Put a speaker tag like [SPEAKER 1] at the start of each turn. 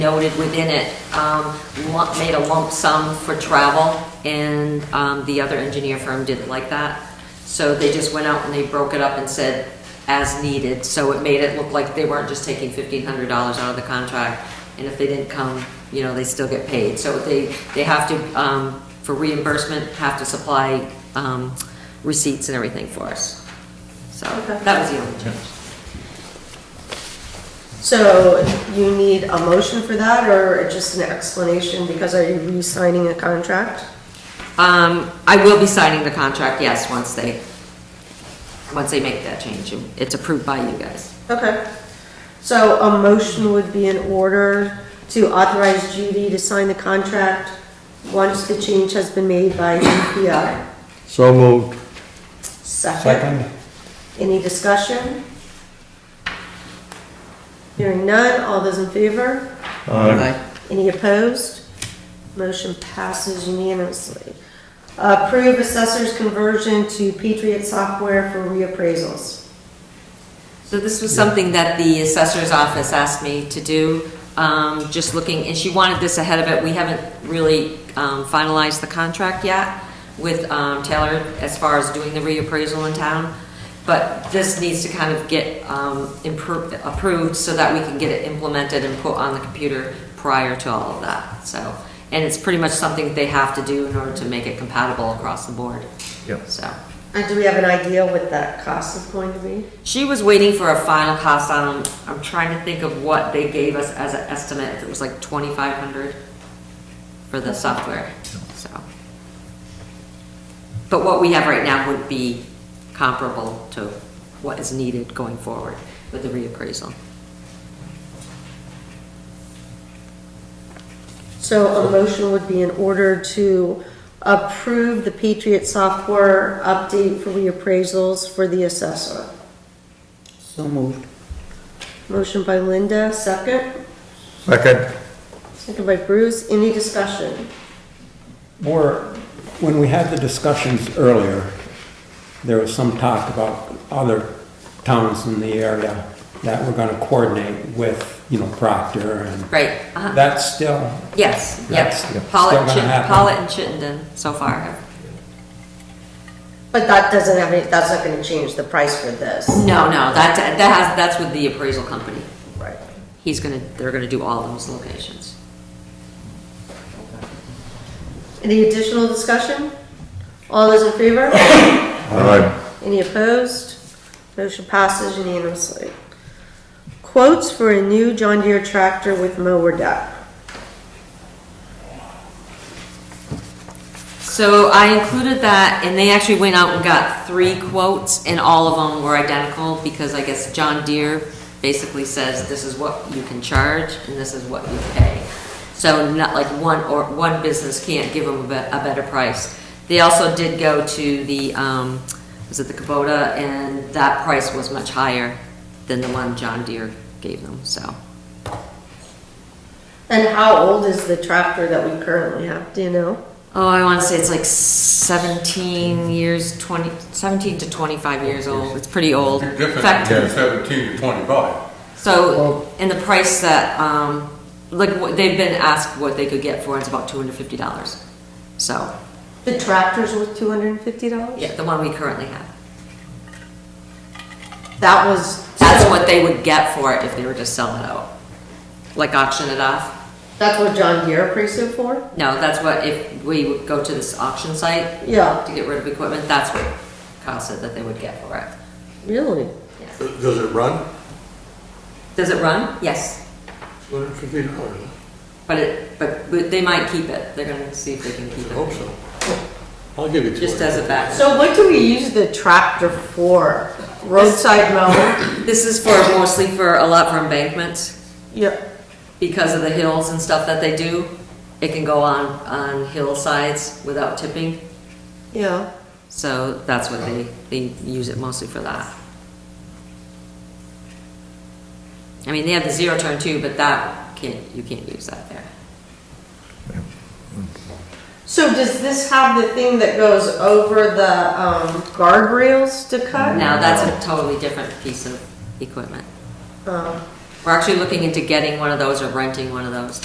[SPEAKER 1] noted within it, um, lump- made a lump sum for travel, and um, the other engineer firm didn't like that. So they just went out and they broke it up and said, as needed, so it made it look like they weren't just taking fifteen hundred dollars out of the contract, and if they didn't come, you know, they still get paid. So they, they have to, um, for reimbursement, have to supply um, receipts and everything for us. So that was the only change.
[SPEAKER 2] So you need a motion for that or just an explanation because are you re-signing a contract?
[SPEAKER 1] Um, I will be signing the contract, yes, once they, once they make that change. It's approved by you guys.
[SPEAKER 2] Okay. So a motion would be in order to authorize Judy to sign the contract once the change has been made by UPI.
[SPEAKER 3] So moved.
[SPEAKER 2] Second. Any discussion? Hearing none, all those in favor? Any opposed? Motion passes unanimously. Approve assessor's conversion to Patriot software for reappraisals.
[SPEAKER 1] So this was something that the assessor's office asked me to do, um, just looking, and she wanted this ahead of it. We haven't really um, finalized the contract yet with um, Taylor as far as doing the reappraisal in town. But this needs to kind of get um, impro- approved so that we can get it implemented and put on the computer prior to all of that, so. And it's pretty much something that they have to do in order to make it compatible across the board.
[SPEAKER 3] Yep.
[SPEAKER 1] So.
[SPEAKER 2] And Uh, do we have an idea what that cost is going to be?
[SPEAKER 1] She was waiting for a final cost on them. I'm trying to think of what they gave us as an estimate. If It was like twenty-five hundred for the software, so. But what we have right now would be comparable to what is needed going forward with the reappraisal.
[SPEAKER 2] So a motion would be in order to approve the Patriot software update for reappraisals for the assessor.
[SPEAKER 4] So moved.
[SPEAKER 2] Motion by Linda, second.
[SPEAKER 3] Second.
[SPEAKER 2] Second by Bruce. Any discussion?
[SPEAKER 5] Or, when we had the discussions earlier, there was some talk about other towns in the area that were gonna coordinate with, you know, Proctor and.
[SPEAKER 1] Right, uh-huh.
[SPEAKER 5] That's still,
[SPEAKER 1] Yes,
[SPEAKER 5] That's-
[SPEAKER 1] yes.
[SPEAKER 5] yeah.
[SPEAKER 1] Pollitt,
[SPEAKER 5] Still gonna
[SPEAKER 1] Chitt-
[SPEAKER 5] happen.
[SPEAKER 1] Pollitt and Chittenden so far.
[SPEAKER 2] But that doesn't have any, that's not gonna change the price for this.
[SPEAKER 1] No, no, that, that has, that's with the appraisal company.
[SPEAKER 2] Right.
[SPEAKER 1] He's gonna, they're gonna do all those locations.
[SPEAKER 2] Any additional discussion? All those in favor?
[SPEAKER 3] Aye.
[SPEAKER 2] Any opposed? Motion passes unanimously. Quotes for a new John Deere tractor with mower deck.
[SPEAKER 1] So I included that, and they actually went out and got three quotes, and all of them were identical, because I guess John Deere basically says, this is what you can charge, and this is what you pay. So not like one, or one business can't give them a, be- a better price. They also did go to the, um, was it the Kubota, and that price was much higher than the one John Deere gave them, so.
[SPEAKER 2] And how old is the tractor that we currently have, do you know?
[SPEAKER 1] Oh, I want to say it's like 17 years, 20, 17 to 25 years old. It's pretty old. In
[SPEAKER 6] Different
[SPEAKER 1] fact,
[SPEAKER 6] between seventeen to twenty-five.
[SPEAKER 1] so, and the price that, um, like, what- they've been asked what they could get for, it's about $250. So,
[SPEAKER 2] The tractor's worth two hundred and fifty dollars?
[SPEAKER 1] yeah, the one we currently have.
[SPEAKER 2] That was.
[SPEAKER 1] That's what they would get for it if they were to sell it out. Like auction it off.
[SPEAKER 2] That's what John Deere appraised it for?
[SPEAKER 1] No, that's what, if we would go to this auction site
[SPEAKER 2] Yeah,
[SPEAKER 1] to get rid of equipment, that's what Kyle said that they would get for it.
[SPEAKER 2] really?
[SPEAKER 1] Yeah.
[SPEAKER 6] Does it run?
[SPEAKER 1] Does it run? Yes.
[SPEAKER 6] Two hundred and fifty dollars.
[SPEAKER 1] But it, but, but they might keep it, they're gonna see if they can
[SPEAKER 6] I
[SPEAKER 1] keep
[SPEAKER 6] hope
[SPEAKER 1] it,
[SPEAKER 6] so. I'll give you two.
[SPEAKER 1] just as a back.
[SPEAKER 2] So what do we use the tractor for? Roadside mower?
[SPEAKER 1] This is for, mostly for, a lot for embankments,
[SPEAKER 2] Yeah.
[SPEAKER 1] because of the hills and stuff that they do. It can go on, on hillsides without tipping,
[SPEAKER 2] Yeah.
[SPEAKER 1] so that's what they, they use it mostly for that. I mean, they have the zero turn too, but that can't, you can't use that there.
[SPEAKER 2] So does this have the thing that goes over the um, guardrails to cut?
[SPEAKER 1] Now, that's a totally different piece of equipment.
[SPEAKER 2] Oh.
[SPEAKER 1] We're actually looking into getting one of those or renting one of those.